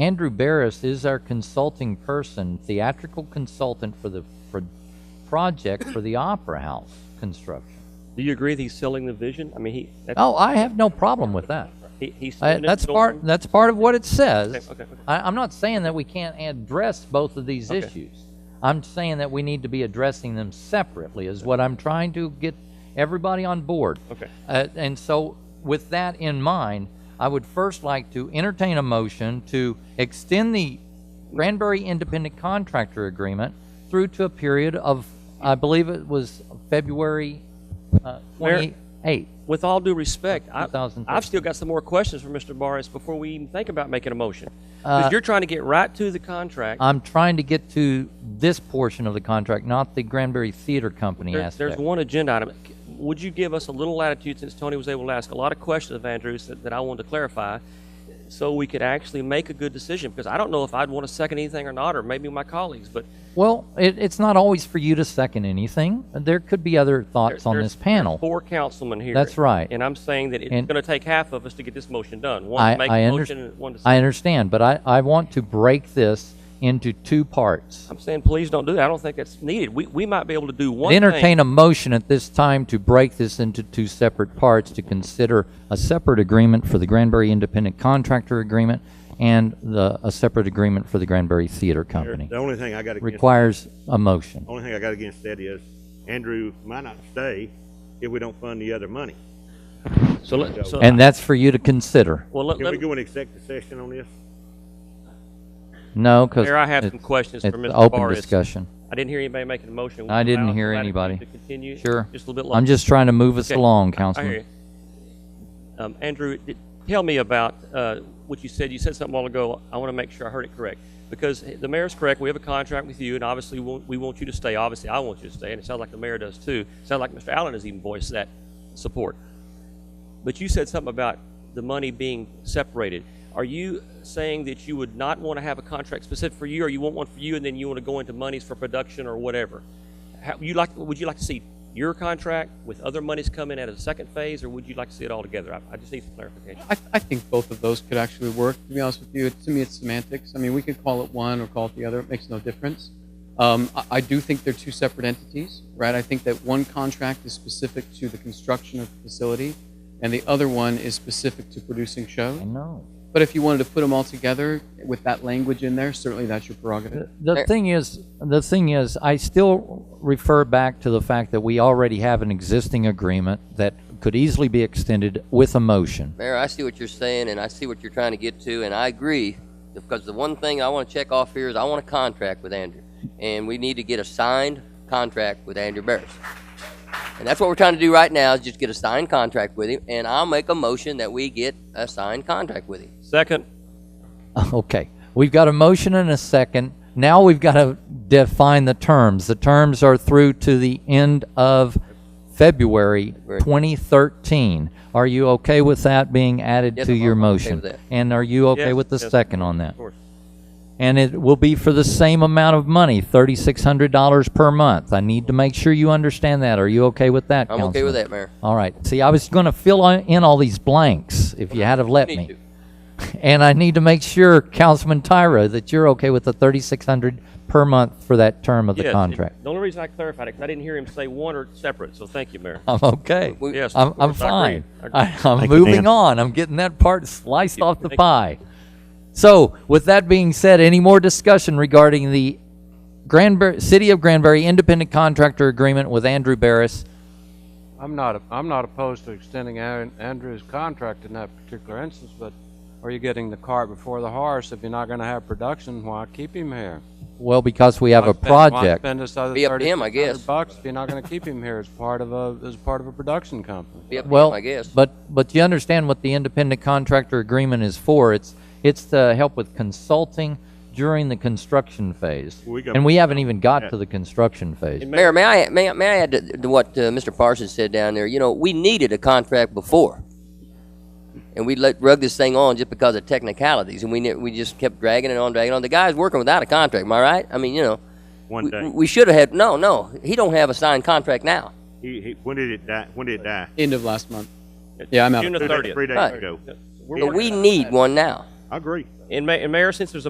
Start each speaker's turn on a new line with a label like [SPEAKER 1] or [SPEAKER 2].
[SPEAKER 1] Andrew Barris is our consulting person, theatrical consultant for the for project for the Opera House construction.
[SPEAKER 2] Do you agree that he's selling the vision? I mean, he, that's,
[SPEAKER 1] Oh, I have no problem with that.
[SPEAKER 2] he, he's
[SPEAKER 1] I,
[SPEAKER 2] selling it,
[SPEAKER 1] that's
[SPEAKER 2] going-
[SPEAKER 1] part. That's part of what it says.
[SPEAKER 2] Okay, okay, okay.
[SPEAKER 1] I, I'm not saying that we can't address both of these
[SPEAKER 2] Okay.
[SPEAKER 1] issues. I'm saying that we need to be addressing them separately. Is what I'm trying to get everybody on board.
[SPEAKER 2] Okay.
[SPEAKER 1] Uh, and so, with that in mind, I would first like to entertain a motion to extend the Granbury Independent Contractor Agreement through to a period of, I believe it was February uh,
[SPEAKER 2] Mayor-
[SPEAKER 1] 28th.
[SPEAKER 2] With all due respect, I,
[SPEAKER 1] 2013.
[SPEAKER 2] I've still got some more questions for Mr. Barris before we even think about making a motion.
[SPEAKER 1] Uh,
[SPEAKER 2] Because you're trying to get right to the contract.
[SPEAKER 1] I'm trying to get to this portion of the contract, not the Granbury Theater Company
[SPEAKER 2] There-
[SPEAKER 1] aspect.
[SPEAKER 2] There's one agenda item. C- Would you give us a little latitude, since Tony was able to ask a lot of questions of Andrews that, that I wanted to clarify, so we could actually make a good decision? Because I don't know if I'd want to second anything or not, or maybe my colleagues, but
[SPEAKER 1] Well, it, it's not always for you to second anything. There could be other thoughts on this
[SPEAKER 2] there's-
[SPEAKER 1] panel.
[SPEAKER 2] four councilmen here.
[SPEAKER 1] That's right.
[SPEAKER 2] And I'm saying that it's
[SPEAKER 1] And-
[SPEAKER 2] going to take half of us to get this motion done.
[SPEAKER 1] I-
[SPEAKER 2] One to make
[SPEAKER 1] I
[SPEAKER 2] a
[SPEAKER 1] under-
[SPEAKER 2] motion and one to
[SPEAKER 1] I
[SPEAKER 2] second.
[SPEAKER 1] understand, but I, I want to break this into two parts.
[SPEAKER 2] I'm saying, please don't do that. I don't think that's needed. We, we might be able to do one thing.
[SPEAKER 1] Entertain a motion at this time to break this into two separate parts to consider a separate agreement for the Granbury Independent Contractor Agreement and the, a separate agreement for the Granbury Theater Company.
[SPEAKER 3] The only thing I got against, the
[SPEAKER 1] Requires a motion.
[SPEAKER 2] Oh,
[SPEAKER 3] only thing I got against that is Andrew might not stay if we don't fund the other money.
[SPEAKER 2] So, let- so,
[SPEAKER 1] And that's for you to consider.
[SPEAKER 2] well, let,
[SPEAKER 3] Can we
[SPEAKER 2] let,
[SPEAKER 3] go in executive session on this?
[SPEAKER 1] No, because
[SPEAKER 2] Mayor, I have some questions for
[SPEAKER 1] it's
[SPEAKER 2] Mr.
[SPEAKER 1] open
[SPEAKER 2] Barris.
[SPEAKER 1] discussion.
[SPEAKER 2] I didn't hear anybody making a motion.
[SPEAKER 1] I didn't
[SPEAKER 2] Allow
[SPEAKER 1] hear
[SPEAKER 2] somebody
[SPEAKER 1] anybody.
[SPEAKER 2] To continue.
[SPEAKER 1] Sure.
[SPEAKER 2] Just a little bit longer.
[SPEAKER 1] I'm just trying to move us
[SPEAKER 2] Okay.
[SPEAKER 1] along,
[SPEAKER 2] I hear
[SPEAKER 1] Councilman.
[SPEAKER 2] you. Um, Andrew, d- tell me about uh, what you said. You said something a while ago. I want to make sure I heard it correct. Because the mayor's correct. We have a contract with you, and obviously we want, we want you to stay. Obviously, I want you to stay, and it sounds like the mayor does too. Sounds like Mr. Allen has even voiced that support. But you said something about the money being separated. Are you saying that you would not want to have a contract specific for you, or you want one for you, and then you want to go into monies for production or whatever? How, you like? Would you like to see your contract with other monies come in at a second phase, or would you like to see it all together? I, I just need some clarification.
[SPEAKER 4] I, I think both of those could actually work. To be honest with you, to me, it's semantics. I mean, we could call it one or call it the other. It makes no difference. Um, I, I do think they're two separate entities, right? I think that one contract is specific to the construction of the facility, and the other one is specific to producing shows.
[SPEAKER 1] I know.
[SPEAKER 4] But if you wanted to put them all together with that language in there, certainly that's your prerogative.
[SPEAKER 1] The thing is, the thing is, I still refer back to the fact that we already have an existing agreement that could easily be extended with a motion.
[SPEAKER 5] Mayor, I see what you're saying, and I see what you're trying to get to, and I agree, because the one thing I want to check off here is I want a contract with Andrew, and we need to get a signed contract with Andrew Barris. And that's what we're trying to do right now, is just get a signed contract with him, and I'll make a motion that we get a signed contract with him.
[SPEAKER 2] Second,
[SPEAKER 1] Okay, we've got a motion and a second. Now we've got to define the terms. The terms are through to the end of February 2013. Are you okay with that being added
[SPEAKER 5] Yes,
[SPEAKER 1] to
[SPEAKER 5] I'm-
[SPEAKER 1] your
[SPEAKER 5] I'm okay
[SPEAKER 1] motion?
[SPEAKER 5] with that.
[SPEAKER 1] And are you okay
[SPEAKER 2] Yes,
[SPEAKER 1] with the
[SPEAKER 2] yes.
[SPEAKER 1] second on that?
[SPEAKER 2] of course.
[SPEAKER 1] And it will be for the same amount of money, $3,600 per month. I need to make sure you understand that. Are you okay with that,
[SPEAKER 5] I'm okay
[SPEAKER 1] Councilman?
[SPEAKER 5] with that, Mayor.
[SPEAKER 1] All right. See, I was going to fill on- in all these blanks if you had have let
[SPEAKER 5] You
[SPEAKER 1] me.
[SPEAKER 5] need to.
[SPEAKER 1] And I need to make sure, Councilman Tyra, that you're okay with the thirty-six hundred per month for that term of the
[SPEAKER 2] Yes,
[SPEAKER 1] contract.
[SPEAKER 2] The only reason I clarified it, because I didn't hear him say one or separate, so thank you, Mayor.
[SPEAKER 1] I'm okay.
[SPEAKER 5] We-
[SPEAKER 2] Yes,
[SPEAKER 1] I'm,
[SPEAKER 2] of
[SPEAKER 1] I'm
[SPEAKER 2] course, I agree.
[SPEAKER 1] fine.
[SPEAKER 2] I
[SPEAKER 1] I,
[SPEAKER 2] agree.
[SPEAKER 1] I'm
[SPEAKER 3] Thank you,
[SPEAKER 1] moving
[SPEAKER 3] Dan.
[SPEAKER 1] on. I'm getting that part sliced off the
[SPEAKER 2] Thank you.
[SPEAKER 1] pie. So with that being said, any more discussion regarding the Granbury, City of Granbury Independent Contractor Agreement with Andrew Barris?
[SPEAKER 6] I'm not, I'm not opposed to extending Aaron- Andrew's contract in that particular instance, but are you getting the cart before the horse? If you're not gonna have production, why keep him here?
[SPEAKER 1] Well, because we have
[SPEAKER 6] Why
[SPEAKER 1] a
[SPEAKER 6] spend- why
[SPEAKER 1] project.
[SPEAKER 6] Spend this other
[SPEAKER 5] Be up to
[SPEAKER 6] thirty
[SPEAKER 5] him, I guess.
[SPEAKER 6] bucks if you're not gonna keep him here as part of a, as part of a production company.
[SPEAKER 5] Be up to him,
[SPEAKER 1] Well,
[SPEAKER 5] I guess.
[SPEAKER 1] But, but you understand what the independent contractor agreement is for. It's, it's to help with consulting during the construction phase.
[SPEAKER 3] We got-
[SPEAKER 1] And we haven't even got to the construction phase.
[SPEAKER 5] Mayor, may I, may, I- may I add to, to what uh, Mr. Parsons said down there? You know, we needed a contract before. And we let rug this thing on just because of technicalities, and we ne- we just kept dragging it on, dragging it on. The guy's working without a contract, am I right? I mean, you know,
[SPEAKER 3] One
[SPEAKER 5] we,
[SPEAKER 3] day.
[SPEAKER 5] we should have had. No, no, he don't have a signed contract now.
[SPEAKER 3] He, he, when did it die? When did it die?
[SPEAKER 4] End of last month. Yeah, I'm out.
[SPEAKER 2] June the
[SPEAKER 3] Three days-
[SPEAKER 2] thirtieth.
[SPEAKER 3] Three days
[SPEAKER 5] Right.
[SPEAKER 3] ago.
[SPEAKER 2] We're
[SPEAKER 5] But
[SPEAKER 2] working
[SPEAKER 5] we need one now.
[SPEAKER 3] I agree.
[SPEAKER 2] And Ma- and Mayor, since there's a